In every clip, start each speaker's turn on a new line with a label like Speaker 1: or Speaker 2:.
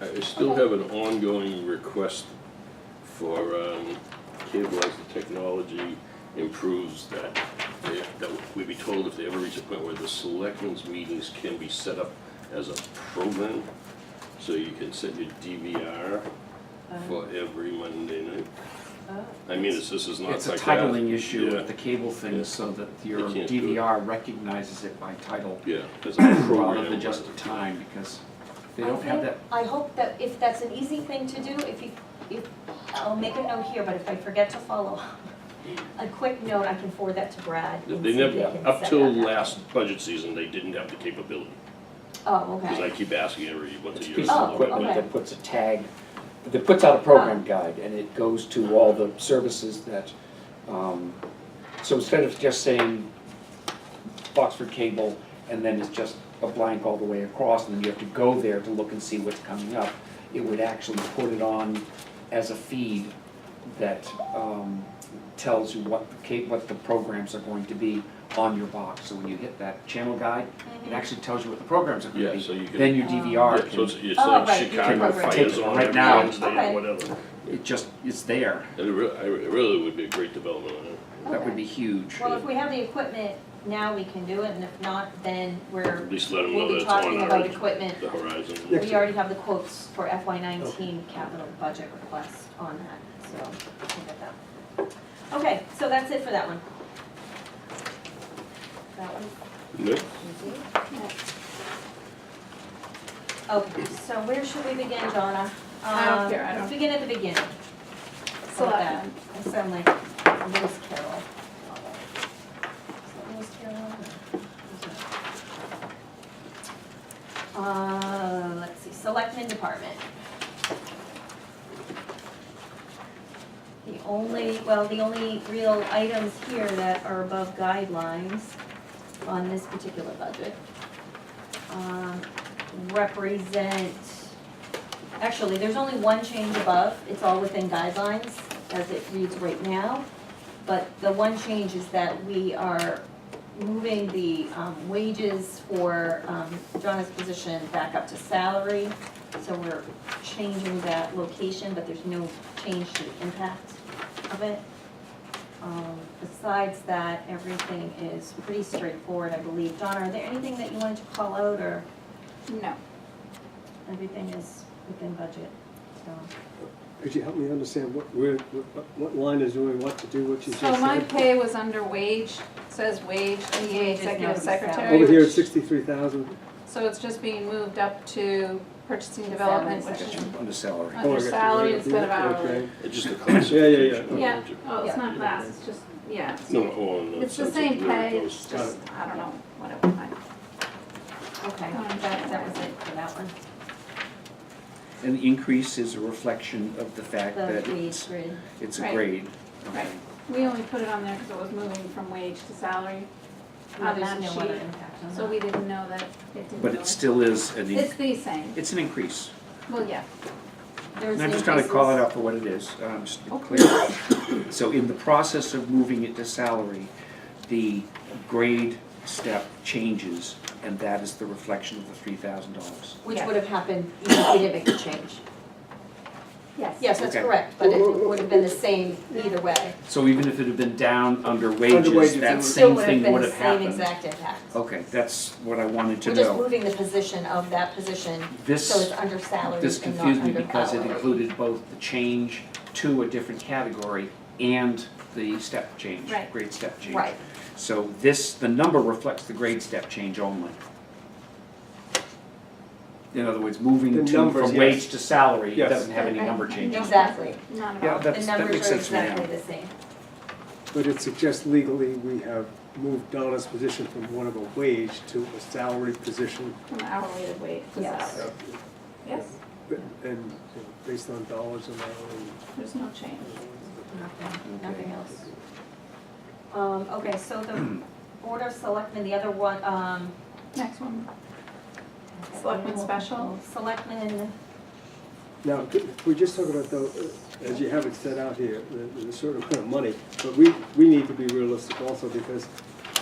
Speaker 1: I still
Speaker 2: Okay.
Speaker 1: have an ongoing request for um, cable as the technology improves that, they- that we be told if they ever reach a point where the selectmen's meetings can be set up as a program, so you can set your DVR for every Monday night.
Speaker 2: Uh-huh. Oh.
Speaker 1: I mean, it's- this is not
Speaker 3: It's a
Speaker 1: like that.
Speaker 3: titling issue
Speaker 1: Yeah,
Speaker 3: with the cable
Speaker 1: Yeah.
Speaker 3: thing, so that your
Speaker 1: They can't do it.
Speaker 3: DVR recognizes it by title
Speaker 1: Yeah, as a
Speaker 3: rather
Speaker 1: program.
Speaker 3: than just a time, because they
Speaker 2: I
Speaker 3: don't have that.
Speaker 2: think- I hope that if that's an easy thing to do, if you, if, I'll make a note here, but if I forget to follow up, a quick note, I can forward that to Brad. and
Speaker 1: They
Speaker 2: see if
Speaker 1: never,
Speaker 2: can
Speaker 1: up
Speaker 2: set
Speaker 1: till
Speaker 2: that up.
Speaker 1: last budget season, they didn't have the capability,
Speaker 2: Oh, okay.
Speaker 1: because I keep asking every once
Speaker 4: It's a
Speaker 1: a year.
Speaker 4: piece of
Speaker 2: Oh,
Speaker 4: equipment
Speaker 2: okay. Oh.
Speaker 4: that puts a tag, that puts out a program guide, and it goes to all the services that, um, so instead of just saying Boxford Cable, and then it's just a blank all the way across, and then you have to go there to look and see what's coming up, it would actually put it on as a feed that, um, tells you what the ca- what the programs are going to be on your box, so when you hit that channel guide,
Speaker 2: Mm.
Speaker 4: it
Speaker 2: Mm-hmm.
Speaker 4: actually tells you what the programs are gonna
Speaker 1: Yeah,
Speaker 4: be,
Speaker 1: so you can.
Speaker 4: then your DVR
Speaker 1: Yeah,
Speaker 4: can.
Speaker 1: so it's, it's
Speaker 2: Oh,
Speaker 1: like
Speaker 2: right, you can
Speaker 1: Chicago
Speaker 2: program it.
Speaker 1: fires on
Speaker 3: Right
Speaker 1: every
Speaker 3: now.
Speaker 1: Wednesday
Speaker 2: Okay.
Speaker 1: or whatever.
Speaker 3: It just, it's there.
Speaker 1: And it really, it really would be a great development on it.
Speaker 3: That
Speaker 2: Okay.
Speaker 3: would be huge.
Speaker 2: Well, if we have the equipment, now we can do it, and if not, then we're,
Speaker 1: At least let them
Speaker 2: we'll
Speaker 1: know
Speaker 2: be
Speaker 1: that it's on
Speaker 2: talking about
Speaker 1: our,
Speaker 2: equipment.
Speaker 1: the horizon.
Speaker 2: We already have the quotes for FY nineteen capital budget request on that, so we'll get that. Okay, so that's it for that one. That one.
Speaker 1: Nick?
Speaker 2: Okay, Oh, so where should we begin, Donna?
Speaker 5: I don't
Speaker 2: Um,
Speaker 5: care, I
Speaker 2: Let's
Speaker 5: don't-
Speaker 2: begin at the beginning.
Speaker 5: Selectmen.
Speaker 2: I sound like Lewis Carroll. Is that Lewis Carroll? Uh, let's see, Selectmen Department. The only, well, the only real items here that are above guidelines on this particular budget um, represent, actually, there's only one change above, it's all within guidelines as it reads right now. But the one change is that we are moving the um, wages for um, Donna's position back up to salary. So we're changing that location, but there's no change to the impact of it. Um, Besides that, everything is pretty straightforward, I believe. Donna, are there anything that you wanted to call out, or
Speaker 5: No.
Speaker 2: everything is within budget? So,
Speaker 6: Could you help me understand what, where, what- what line is doing what to do, what you just
Speaker 5: So my
Speaker 6: said?
Speaker 5: pay was under wage, says wage, EA
Speaker 2: Wages, no,
Speaker 5: executive
Speaker 2: it's
Speaker 5: secretary.
Speaker 6: Over here,
Speaker 5: which-
Speaker 6: it's sixty-three thousand,
Speaker 5: So it's just being moved up to purchasing
Speaker 2: Salary
Speaker 5: development, which is
Speaker 2: section.
Speaker 3: Under salary.
Speaker 6: Oh, I
Speaker 5: under
Speaker 6: got you,
Speaker 5: salary
Speaker 6: right,
Speaker 5: instead of
Speaker 6: yeah,
Speaker 5: hourly.
Speaker 6: okay.
Speaker 1: It's just a
Speaker 6: Yeah, yeah, yeah.
Speaker 1: classification.
Speaker 5: Yeah, oh,
Speaker 2: Yeah.
Speaker 5: it's not class, it's just, yeah. it's-
Speaker 1: No, on uh, the
Speaker 5: It's the
Speaker 1: sense of
Speaker 5: same
Speaker 1: where it
Speaker 5: pay,
Speaker 1: goes.
Speaker 5: it's just, I don't know, whatever.
Speaker 2: Okay,
Speaker 5: Um,
Speaker 2: that, that was it for that one.
Speaker 3: And the increase is a reflection of the fact
Speaker 2: The
Speaker 3: that
Speaker 2: wage
Speaker 3: it's,
Speaker 2: grid.
Speaker 3: it's a
Speaker 5: Right.
Speaker 3: grade.
Speaker 5: Right. We only put it on there because it was moving from wage to salary,
Speaker 2: Yeah,
Speaker 5: Others
Speaker 2: there's
Speaker 5: and
Speaker 2: no other
Speaker 5: she-
Speaker 2: impact on
Speaker 5: so
Speaker 2: that.
Speaker 5: we didn't know that it didn't.
Speaker 3: But
Speaker 5: go-
Speaker 3: it still is an,
Speaker 5: It's
Speaker 3: in-
Speaker 5: the same,
Speaker 3: it's an increase.
Speaker 5: well, yeah.
Speaker 2: There was
Speaker 3: And I'm just trying to call it
Speaker 2: increases.
Speaker 3: out for what it is, um, just to be clear. So in the process of moving it to salary, the grade step changes, and that is the reflection of the three thousand dollars.
Speaker 2: Which
Speaker 5: Yeah.
Speaker 2: would have happened even if we didn't make the change.
Speaker 5: Yes.
Speaker 2: Yes, that's
Speaker 3: Okay.
Speaker 2: correct, but it would have been the same either way.
Speaker 3: So even if it had been down under
Speaker 6: wages,
Speaker 3: wages,
Speaker 6: it
Speaker 3: that
Speaker 6: would-
Speaker 3: same thing
Speaker 2: Still would have been
Speaker 3: would have
Speaker 2: the
Speaker 3: happened.
Speaker 2: same exact impact.
Speaker 3: Okay, that's what I wanted to
Speaker 2: We're
Speaker 3: know.
Speaker 2: just moving the position of that position, so it's
Speaker 3: This,
Speaker 2: under salary
Speaker 3: this
Speaker 2: and not under
Speaker 3: confused me because it
Speaker 2: hourly.
Speaker 3: included both the change to a different category and the step change,
Speaker 5: Right.
Speaker 3: grade step change.
Speaker 2: Right,
Speaker 3: So this, the number reflects the grade step change only. In other words, moving
Speaker 6: The
Speaker 3: to,
Speaker 6: numbers,
Speaker 3: from
Speaker 6: yes.
Speaker 3: wage to salary
Speaker 6: Yes.
Speaker 3: doesn't have any number
Speaker 5: Right.
Speaker 3: changes.
Speaker 2: exactly.
Speaker 5: Not at
Speaker 3: Yeah,
Speaker 5: all.
Speaker 2: The
Speaker 3: that's, that makes
Speaker 2: numbers are
Speaker 3: sense to me now.
Speaker 2: exactly the same.
Speaker 6: but it suggests legally we have moved Donna's position from one of a wage to a salary position.
Speaker 5: From hourly to wage to
Speaker 2: Yes.
Speaker 5: salary. Yes,
Speaker 6: but- And you know, based on dollars and hour
Speaker 5: there's no change.
Speaker 2: Nothing, nothing else. Um, okay, so the Board of Selectmen, the other one, um.
Speaker 5: Next one. Selectmen special?
Speaker 2: Selectmen,
Speaker 6: Now, could- if we just talk about though, uh, as you have it set out here, the, the certain amount of money, but we, we need to be realistic also because,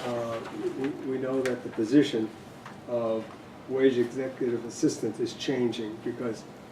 Speaker 6: uh, we, we know that the position of wage executive assistant is changing because